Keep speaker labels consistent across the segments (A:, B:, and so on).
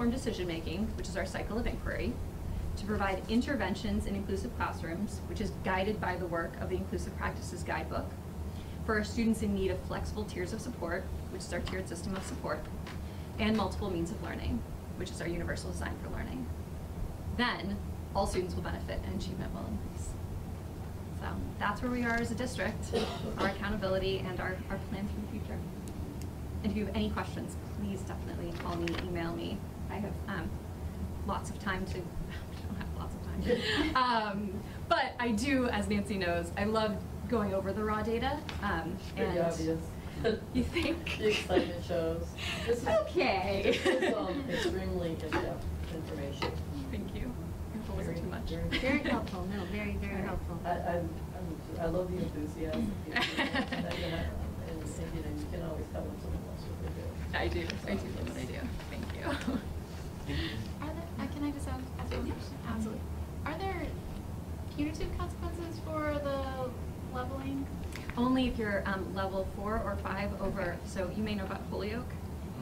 A: informed decision-making, which is our cycle of inquiry, to provide interventions in inclusive classrooms, which is guided by the work of the Inclusive Practices Guidebook, for our students in need of flexible tiers of support, which is our tiered system of support, and multiple means of learning, which is our universal design for learning. Then, all students will benefit and achievement will increase. So that's where we are as a district, our accountability and our, our plan for the future. And if you have any questions, please definitely call me, email me. I have um, lots of time to, I don't have lots of time. Um, But I do, as Nancy knows, I love going over the raw data. um,
B: Pretty
A: and-
B: obvious.
A: You think?
B: The excitement shows. This is-
A: Okay.
B: This is um, extremely in-depth information.
A: Thank you. I hope it wasn't too much.
B: Very-
C: Very helpful, no, very, very helpful.
B: I, I'm, I'm- I love the enthusiasm. And, and, you know, you can always tell when someone loves what they do.
A: I do, I do love what I do. Thank you.
D: Are there, uh, can I just ask, ask one question? Um,
A: absolutely.
D: Are there punitive consequences for the leveling?
A: Only if you're um, level four or five over, so you may know about Holyoke.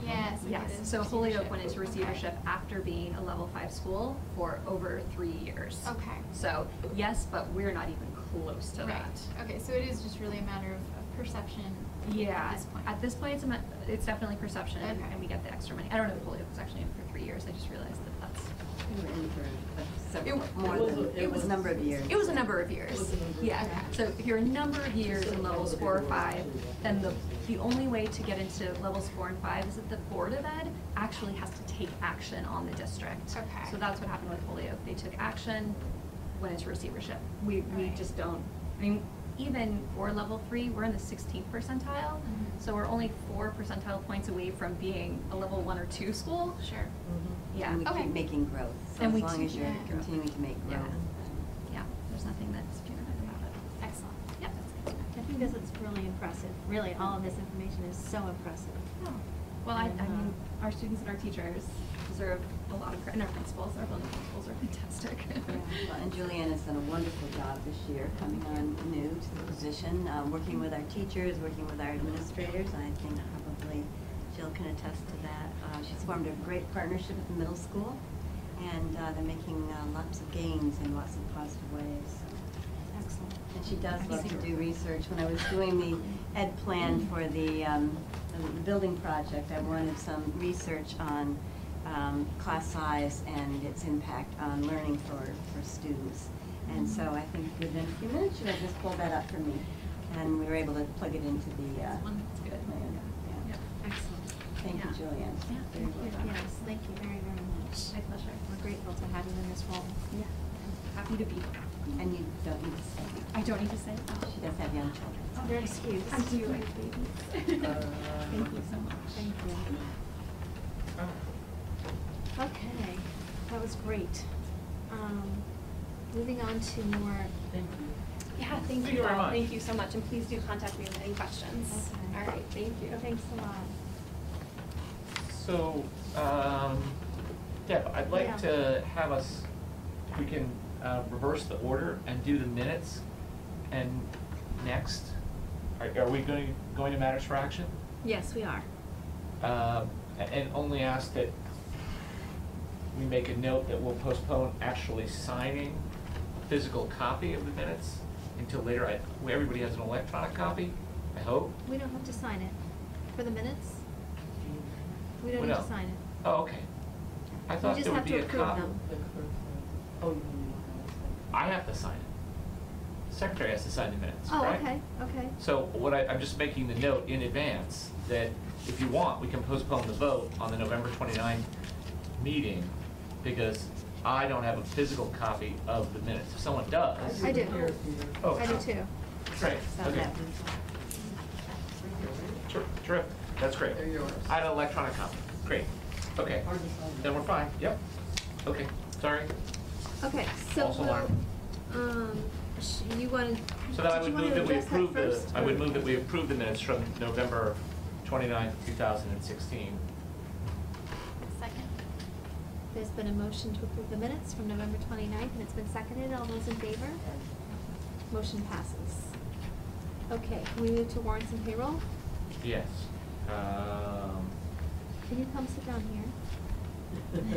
D: Yes. okay,
A: Yes,
D: it is
A: so Holyoke
D: receivership.
A: went into
D: Okay.
A: receivership after being a level five school for over three years.
D: Okay.
A: So, yes, but we're not even close to
D: Right,
A: that.
D: okay, so it is just really a matter of of perception
A: Yeah,
D: at this point.
A: at this point, it's, a ma- it's definitely perception and
D: Okay.
A: and we get the extra money. I don't know if Holyoke was actually in for three years, I just realized that that's.
E: We were in for several,
A: It
E: more
B: was-
E: than,
B: it
E: it was a
B: was-
E: number of years.
A: It was a number of years.
B: It was a number of
A: Yeah,
D: years.
A: so if you're a number of years in levels four or five, then the, the only way to get into levels four and five is that the Board of Ed actually has to take action on the district.
D: Okay.
A: So that's what happened with Holyoke, they took action when it's receivership. We, we
D: Right.
A: just don't, I mean, even for level three, we're in the sixteenth percentile,
D: Mhm.
A: so we're only four percentile points away from being a level one or two school.
D: Sure,
B: Mm-hmm.
A: Yeah.
E: And we
D: Okay.
E: keep making growth, so
A: And
E: as
A: we
E: long
A: keep-
E: as you're
D: yeah.
E: continuing to make
A: Yeah.
E: growth.
A: Yeah, there's nothing that's punitive about it.
D: excellent.
A: Yep.
D: That's good
C: I think this is really impressive, really, all of this information is so impressive.
A: No. Well, I, I mean,
C: Mhm.
A: our students and our teachers deserve a lot of credit, and our principals, our building principals are fantastic.
E: Well, And Julianne has done a wonderful job this year, coming on new to the position, uh, working with our teachers, working with our administrators, and I think probably Jill can attest to that. Uh, She's formed a great partnership with the middle school, and uh, they're making uh, lots of gains in lots of positive ways, so.
C: Excellent.
E: And she does love to do research. When I was doing the ed plan for the, um, the building project, I wanted some research on, um, class size and its impact on learning for, for students. And so I think within a few minutes, she had just pulled that up for me, and we were able to plug it into the, uh,
A: That's one that's good.
E: plan. Yeah.
A: Yep.
C: Excellent.
E: Thank you,
A: Yeah.
E: Julianne.
A: Yeah,
E: Very
A: thank
E: well
A: you.
E: done.
C: Yes, thank you very, very much.
A: My pleasure.
C: We're grateful to have you in this role.
A: Yeah. Happy to be here.
E: And you don't need to say,
A: I don't need to say. it. Oh,
E: she does have young children.
C: Your excuse.
A: I do, I have babies. Thank you so much.
C: Thank you.
F: Oh.
C: Okay, that was great. Um, Moving on to more,
B: Thank you.
G: Yeah, thank you all. Thank you so much, and please do contact me with any questions.
C: Okay.
G: All right, thank you.
C: thanks a lot.
F: So, um, Deb, I'd like
C: Yeah.
F: to have us, if we can, uh, reverse the order and do the minutes and next. Are, are we going, going to matters for action?
C: Yes, we are.
F: Uh, and only ask that we make a note that we'll postpone actually signing a physical copy of the minutes until later. I, well, everybody has an electronic copy, I hope.
C: We don't have to sign it. For the minutes, we
F: Well,
C: don't need
F: no.
C: to sign it.
F: Oh, okay. I
C: We
F: thought
C: just
F: there would
C: have to
F: be a copy.
C: approve them.
B: The clerk, uh, oh, you mean the
F: I have to sign it. Secretary has to sign the minutes,
C: Oh,
F: right?
C: okay, okay.
F: So what I, I'm just making the note in advance that if you want, we can postpone the vote on the November 29 meeting because I don't have a physical copy of the minutes. If someone does.
C: I do.
B: Here, here.
F: Oh,
C: I do too.
F: Great,
E: So
F: okay.
E: that was-
F: Ter- Terrific, that's great.
B: They're yours.
F: I had an electronic copy, great. Okay,
B: Hard to sign.
F: then we're fine, yep. Okay, sorry.
C: Okay, so
F: Also
C: we'll,
F: learn.
C: um, sh- you wanna, did
F: So then I
C: you
F: would
C: wanna
F: move that we
C: address that
F: approve the,
C: first?
F: I would
C: or-
F: move that we approve the minutes from November 29th, 2016.
D: Second?
C: There's been a motion to approve the minutes from November 29th, and it's been seconded. All those in favor? Motion passes. Okay, can we move to warrants and payroll?
F: Yes. Um,
C: Can you come sit down here?
B: Thank you.